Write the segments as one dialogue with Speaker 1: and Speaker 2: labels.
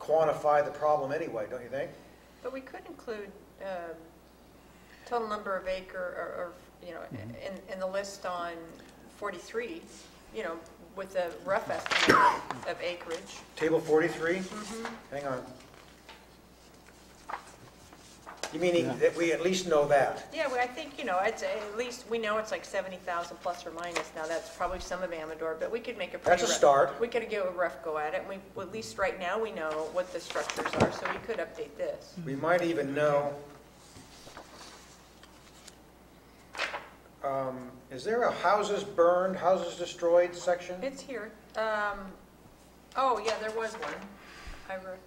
Speaker 1: quantify the problem anyway, don't you think?
Speaker 2: But we could include um, total number of acre, or, or, you know, in, in the list on 43, you know, with a rough estimate of acreage.
Speaker 1: Table 43?
Speaker 2: Mm-hmm.
Speaker 1: Hang on. You meaning that we at least know that?
Speaker 2: Yeah, well, I think, you know, it's, at least, we know it's like 70,000 plus or minus. Now, that's probably some of Amador, but we could make a pretty
Speaker 1: That's a
Speaker 2: rough-
Speaker 1: start.
Speaker 2: We could give a rough go at it, and we, well, at least right now, we know what the structures are, so we could update this.
Speaker 3: Mm-hmm.
Speaker 1: We might even know, um, is there a houses burned, houses destroyed section?
Speaker 2: It's here. Um, oh, yeah, there was one. I wrote.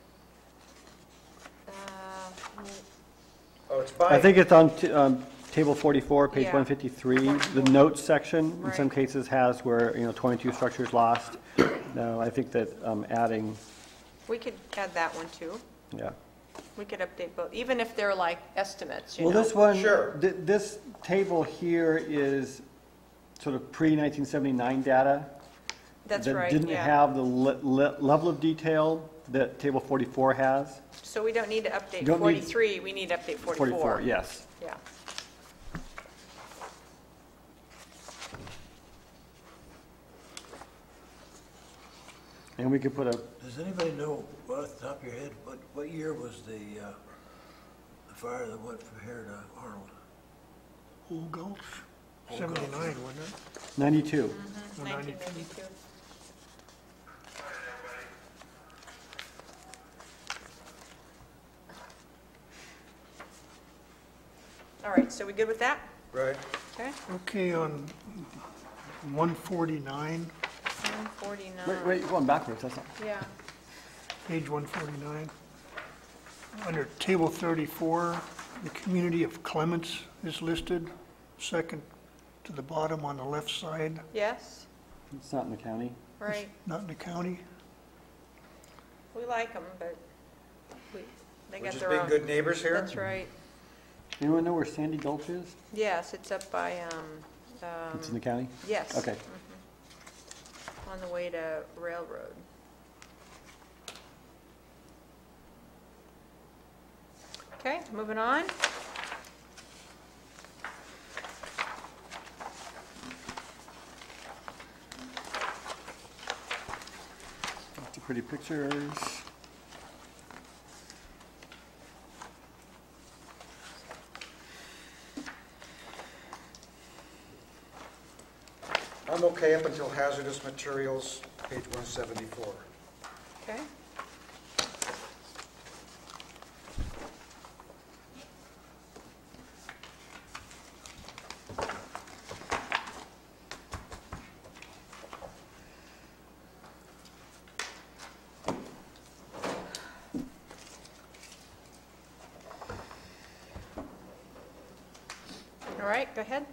Speaker 2: Uh,
Speaker 1: Oh, it's by.
Speaker 3: I think it's on t- um, table 44, page
Speaker 2: Yeah.
Speaker 3: 153. The
Speaker 2: 44.
Speaker 3: notes section, in some
Speaker 2: Right.
Speaker 3: cases, has where, you know, 22 structures lost. No, I think that um, adding,
Speaker 2: We could add that one too.
Speaker 3: yeah.
Speaker 2: We could update both, even if they're like estimates, you know?
Speaker 3: Well, this one,
Speaker 1: Sure.
Speaker 3: th- this table here is sort of pre-1979 data.
Speaker 2: That's right,
Speaker 3: That didn't
Speaker 2: yeah.
Speaker 3: have the le- le- level of detail that table 44 has.
Speaker 2: So we don't need to update
Speaker 3: Don't need-
Speaker 2: 43, we need to update 44.
Speaker 3: yes.
Speaker 2: Yeah.
Speaker 3: And we could put a,
Speaker 4: Does anybody know, well, off the top of your head, what, what year was the, uh, the fire that went from here to Arnold?
Speaker 5: Old Gulch,
Speaker 4: Old Gulch.
Speaker 5: seventy-nine, wasn't it?
Speaker 3: 92.
Speaker 5: Or
Speaker 2: 1992. All right, so we good with that?
Speaker 1: Right.
Speaker 2: Okay.
Speaker 5: Okay, on one forty-nine,
Speaker 2: 149.
Speaker 3: Wait, wait, you're going backwards, that's not.
Speaker 2: Yeah.
Speaker 5: page one forty-nine, under table thirty-four, the community of Clements is listed, second to the bottom on the left side,
Speaker 2: Yes,
Speaker 3: It's not in the county.
Speaker 2: right.
Speaker 5: not in the county.
Speaker 2: We like them, but we, they
Speaker 1: We're
Speaker 2: got
Speaker 1: just
Speaker 2: their
Speaker 1: being
Speaker 2: own.
Speaker 1: good neighbors here?
Speaker 2: That's right.
Speaker 3: Anyone know where Sandy Gulch is?
Speaker 2: Yes, it's up by, um, um,
Speaker 3: It's in the county?
Speaker 2: yes.
Speaker 3: Okay.
Speaker 2: On the way to Railroad. Okay, moving on.
Speaker 3: Lots of pretty pictures.
Speaker 1: I'm okay up until hazardous materials, page 174.
Speaker 2: Okay. All right, go ahead.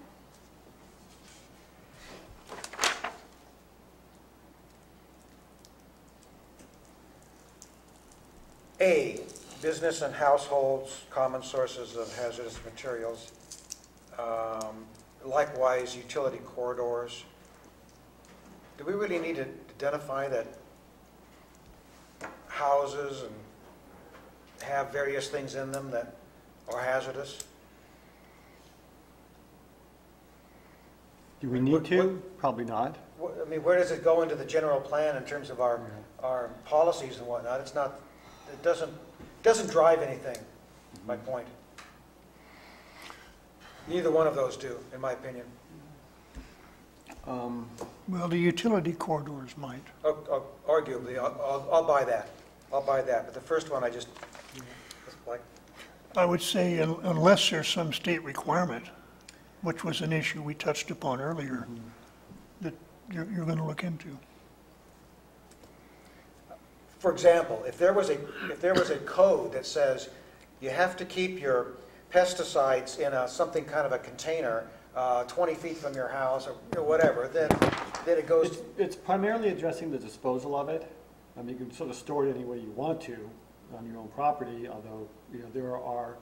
Speaker 1: A, business and households, common sources of hazardous materials. Um, Likewise, utility corridors. Do we really need to identify that houses and have various things in them that are hazardous?
Speaker 3: Do we
Speaker 1: What-
Speaker 3: need to? Probably not.
Speaker 1: Wh- I mean, where does it go into the general plan in terms of our, our policies and whatnot? It's not, it doesn't, doesn't drive anything, my point. Neither one of those do, in my opinion.
Speaker 3: Um,
Speaker 5: Well, the utility corridors might.
Speaker 1: Ar- ar- Arguably, I'll, I'll- I'll buy that. I'll buy that, but the first one I just, it's like,
Speaker 5: I would say un- unless there's some state requirement, which was an issue we touched upon earlier, that you're, you're gonna look into.
Speaker 1: for example, if there was a, if there was a code that says you have to keep your pesticides in a, something kind of a container, uh, 20 feet from your house or you know, whatever, then, then it goes
Speaker 3: It's, it's primarily addressing the disposal of it. I mean, you can sort of store it any way you want to on your own property, although, you know, there are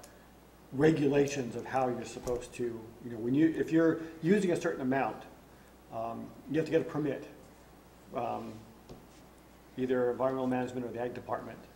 Speaker 3: regulations of how you're supposed to, you know, when you, if you're using a certain amount, um, you have to get a permit. um, Either environmental management or the ag department